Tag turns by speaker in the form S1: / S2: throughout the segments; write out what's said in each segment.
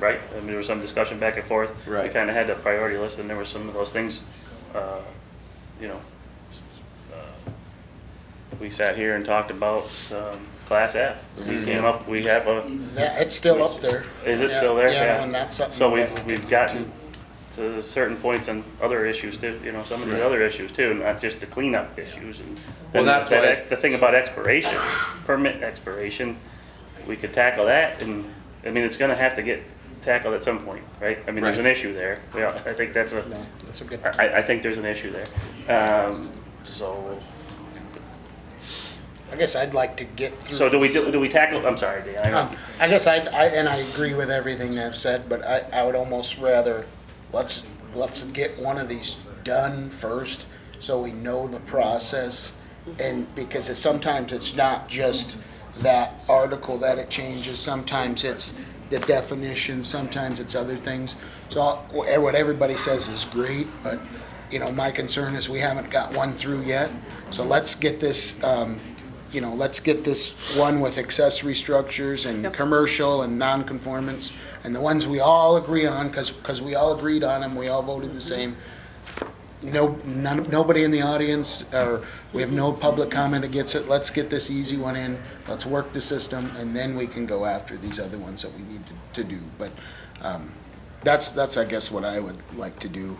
S1: right? I mean, there was some discussion back and forth. We
S2: Right.
S1: kind of had a priority list, and there were some of those things, uh, you know, uh, we sat here and talked about um, Class F. We came up, we have a,
S3: Yeah, it's still up there.
S1: is it still there?
S3: Yeah, and that's something.
S1: So
S3: that
S1: we've,
S3: we
S1: we've
S3: can-
S1: gotten to certain points and other issues too, you know, some of the
S2: Right.
S1: other issues too, not just the cleanup issues and.
S2: Well,
S1: then
S2: that's
S1: that
S2: why-
S1: ex- The thing about expiration, permit expiration, we could tackle that and, I mean, it's gonna have to get tackled at some point, right? I mean, there's an
S2: Right.
S1: issue there. Yeah, I think that's a,
S3: No, that's a good.
S1: I, I think there's an issue there. Um, so,
S3: I guess I'd like to get through.
S1: so do we, do do we tackle, I'm sorry, Dan, I
S3: Um,
S1: know.
S3: I guess I, I, and I agree with everything they've said, but I, I would almost rather, let's, let's get one of these done first, so we know the process, and, because it's, sometimes it's not just that article that it changes, sometimes it's the definition, sometimes it's other things. So, I'll- wha- what everybody says is great, but, you know, my concern is we haven't got one through yet, so let's get this, um, you know, let's get this one with accessory structures and commercial and non-conformance, and the ones we all agree on, because, we all agreed on them, we all voted the same. No, none, nobody in the audience, or we have no public comment against it, let's get this easy one in, let's work the system, and then we can go after these other ones that we need to, to do. But, um, that's, that's, I guess, what I would like to do.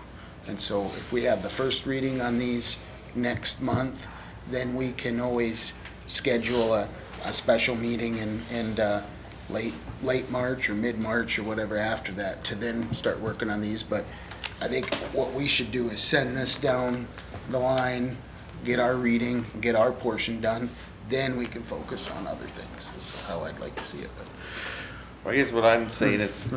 S3: And so if we have the first reading on these next month, then we can always schedule a, a special meeting in, in, uh, late, late March or mid-March or whatever after that to then start working on these. But I think what we should do is send this down the line, get our reading, get our portion done, then we can focus on other things, is how I'd like to see it. But
S2: I guess what I'm saying is,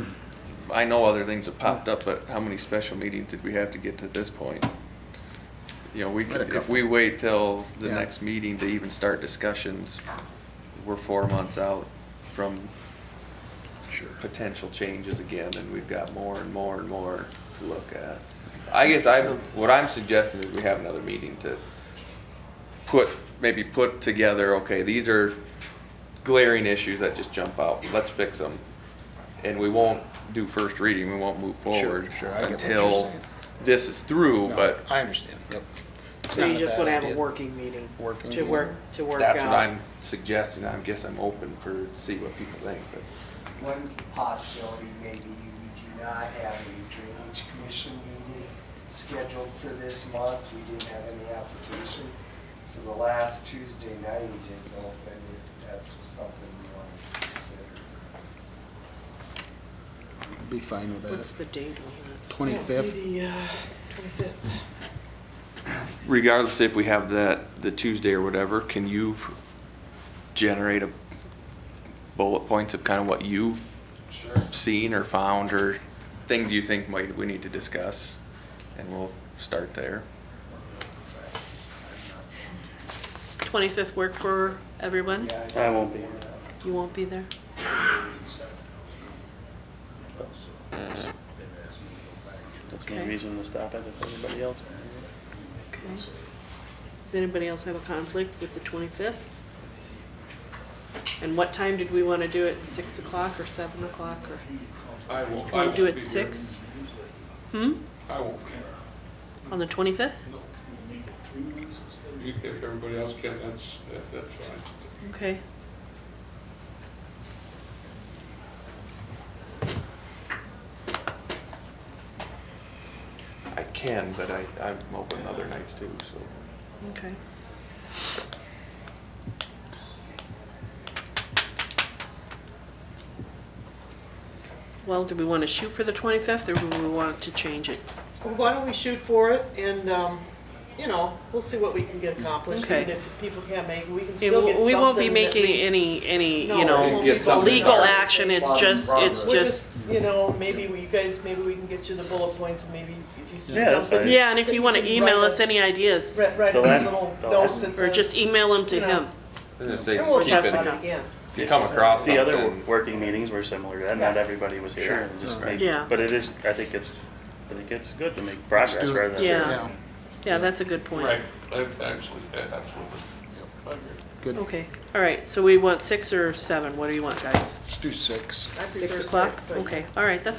S2: I know other things have popped up, but how many special meetings did we have to get to this point? You know, we,
S3: Had a
S2: could- if
S3: couple.
S2: we wait till the
S3: Yeah.
S2: next meeting to even start discussions, we're four months out from
S3: Sure.
S2: potential changes again, and we've got more and more and more to look at. I guess I, what I'm suggesting is we have another meeting to put, maybe put together, okay, these are glaring issues that just jump out, let's fix them. And we won't do first reading, we won't move forward
S3: sure, I get what you're
S2: until
S3: saying.
S2: this is through,
S3: No,
S2: but
S3: I understand, yep. It's
S4: So
S3: not
S4: you
S3: a
S4: just
S3: bad
S4: wanna have a
S3: idea.
S4: working meeting?
S3: Working
S4: To
S3: meeting.
S4: work, to work out?
S2: that's what I'm suggesting, I guess I'm open for, see what people think, but.
S5: One possibility may be we do not have a drainage commission meeting scheduled for this month. We didn't have any applications. So the last Tuesday night is open if that's something we want to consider.
S3: Be fine with
S4: What's
S3: that.
S4: the date on that?
S3: 25th.
S4: uh, Twenty-fifth.
S2: regardless if we have that, the Tuesday or whatever, can you generate a bullet points of kind of what you've
S5: Sure.
S2: seen or found or things you think might, we need to discuss? And we'll start there.
S4: Does twenty-fifth work for everyone?
S1: I won't be.
S4: You won't be there?
S1: That's no
S4: Okay.
S1: reason to stop it if everybody else.
S4: Okay. Does anybody else have a conflict with the twenty-fifth? And what time did we wanna do it? Six o'clock or seven o'clock or?
S6: I won't, I
S4: Wanna
S6: won't
S4: do
S6: be
S4: it
S6: here.
S4: six? Hmm?
S6: I won't care.
S4: On the twenty-fifth?
S6: You- If everybody else can, that's, that- that's fine.
S4: Okay.
S2: I can, but I, I'm open other nights too, so.
S4: Okay. Well, do we want to shoot for the 25th, or do we want to change it?
S7: Well, Why don't we shoot for it and, um, you know, we'll see what we can get accomplished.
S4: Okay.
S7: Even if people can't make, it, we can
S4: We
S7: still get something.
S4: won't be
S7: at
S4: making
S7: least-
S4: any, any,
S7: No,
S4: you
S7: it
S4: know,
S7: won't
S2: Get
S7: be
S2: something
S7: going
S4: legal
S7: far.
S4: action, it's
S5: Fine,
S4: just, it's
S7: We're
S4: just,
S7: You know, maybe we, you guys, maybe we can get you the bullet points and maybe if you see something.
S1: Yeah, that's fine.
S4: yeah, and if you want to email us any ideas,
S7: Write, write
S1: The
S7: us a
S1: last-
S7: little
S1: the
S7: note
S1: last-
S7: that says.
S4: or just email them to him.
S7: And we'll
S4: keep it.
S7: talk about it again.
S2: If you come across
S1: The other
S2: something,
S1: working meetings were similar to that, not everybody was here. and just make-
S4: Yeah.
S1: But it is, I think it's, I think it's good to make progress
S3: do it.
S1: rather than.
S4: Yeah. Yeah, that's a good point.
S6: Right, I- absolutely, absolutely. I agree.
S3: Good,
S4: Okay, all right, so we want six or seven, what do you want, guys?
S3: let's do six.
S7: I prefer
S4: Six o'clock?
S7: but-
S4: Okay, all right, that's